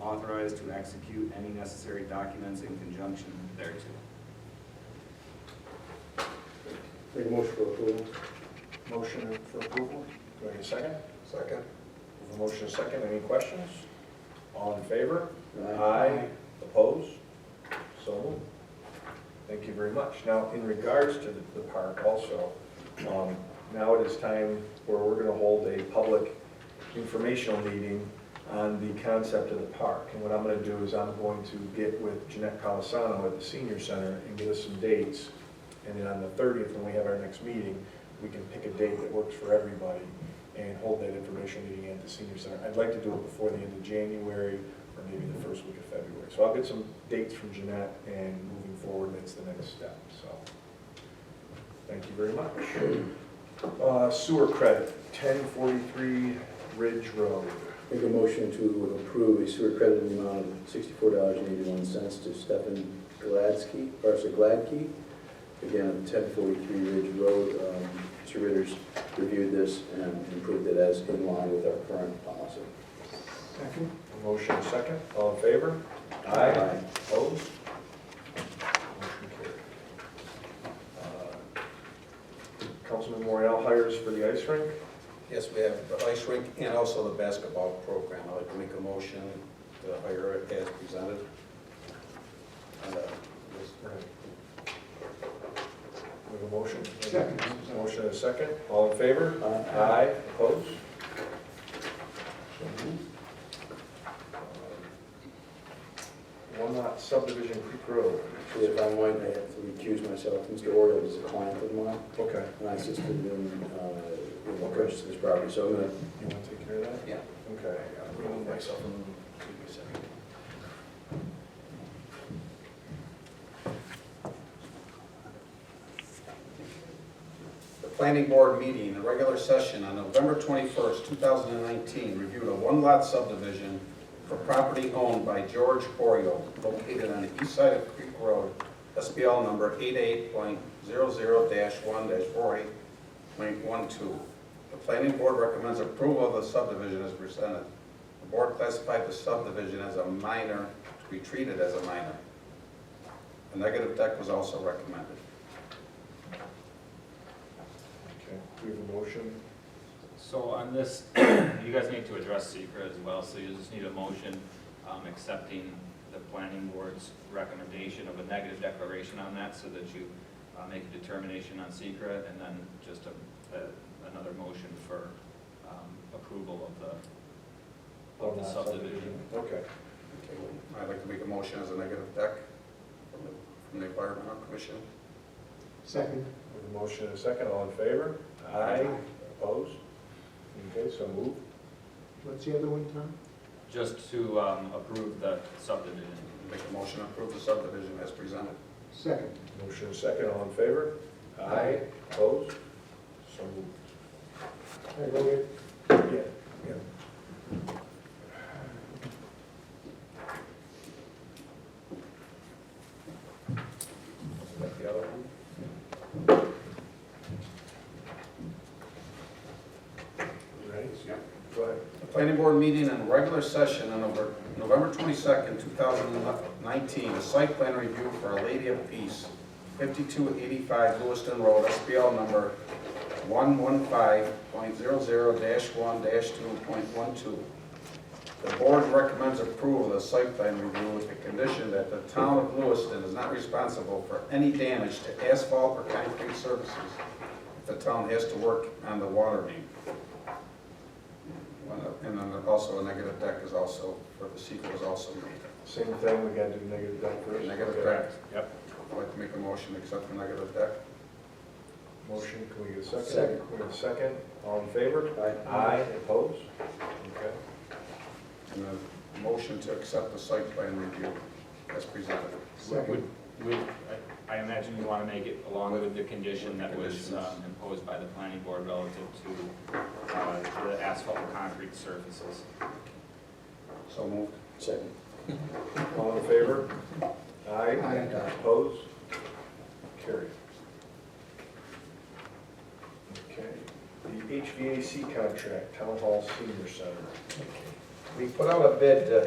authorized to execute any necessary documents in conjunction thereto. Make a motion for approval. Motion for approval, do I get a second? Second. We have a motion and a second, any questions? All in favor? Aye. Opposed? So moved. Thank you very much. Now, in regards to the- the park also, um, now it is time where we're going to hold a public informational meeting on the concept of the park. And what I'm going to do is I'm going to get with Jeanette Colasano at the senior center and get us some dates. And then on the 30th, when we have our next meeting, we can pick a date that works for everybody and hold that information meeting at the senior center. I'd like to do it before the end of January or maybe the first week of February. So I'll get some dates from Jeanette and moving forward, that's the next step, so. Thank you very much. Uh, Sewer credit, 1043 Ridge Road. Make a motion to approve a sewer credit in the amount of sixty-four dollars and eighty-one cents to Stefan Gladsky, or sorry, Gladkey. Again, ten forty-three Ridge Road, um, Mr. Ritter's reviewed this and improved it as in line with our current policy. Second. Motion second, all in favor? Opposed? Motion carried. Uh, Councilman Morel hires for the ice rink. Yes, we have the ice rink and also the basketball program. I'd like to make a motion to hire it as presented. And, uh, this- We have a motion? Second. Motion and a second, all in favor? Aye. Aye, opposed? Uh, One lot subdivision Creek Road. Actually, if I might, I have to recuse myself, Mr. Oriole is a client of mine, Okay. and I assisted him, uh, with the purchase of this property, so I'm gonna You want to take care of that? Yeah. Okay. I'll remove myself and give me a second. The planning board meeting, the regular session on November twenty-first, two thousand and nineteen, reviewed a one-lot subdivision for property owned by George Oriole, located on the east side of Creek Road, SBL number 8800 one four eight point one two. The planning board recommends approval of the subdivision as presented. The board classified the subdivision as a minor, to be treated as a minor. A negative deck was also recommended. Okay, we have a motion. So on this, you guys need to address secret as well, so you just need a motion um, accepting the planning board's recommendation of a negative declaration on that so that you uh, make a determination on secret and then just a, a- another motion for um, approval of the, of the subdivision. Okay. Okay, well, I'd like to make a motion as a negative deck from the- from the environmental commission. Second. With a motion and a second, all in favor? Aye. Opposed? Okay, so move. What's the other one, Tom? Just to um, approve the subdivision. Make a motion to approve the subdivision as presented. Second. Motion and second, all in favor? Aye. Opposed? So moved. Yeah, yeah. Is that the other one? You Ready? Yep. Go ahead. The planning board meeting in regular session on November- November twenty-second, two thousand and nineteen, a site plan review for a Lady of Peace, fifty-two eighty-five Lewiston Road, SBL number one one five point zero zero one two point one two. The board recommends approval of the site plan review with the condition that the town of Lewiston is not responsible for any damage to asphalt or concrete surfaces. The town has to work on the water main. Uh, And then also a negative deck is also, or the secret is also made. Same thing, we gotta do negative deck first. Negative deck, Yep. I'd like to make a motion to accept the negative deck. Motion, can we get a second? Second. We have a second, all in favor? Aye. Opposed? Okay. And a motion to accept the site plan review as presented. Would, would, I I imagine you want to make it along with the condition that was um, imposed by the planning board relative to uh, the asphalt and concrete surfaces. So moved. Second. All in favor? Aye. Aye. Opposed? Carried. Okay, the HVAC contract, Town Hall Senior Center. We put out a bid, uh,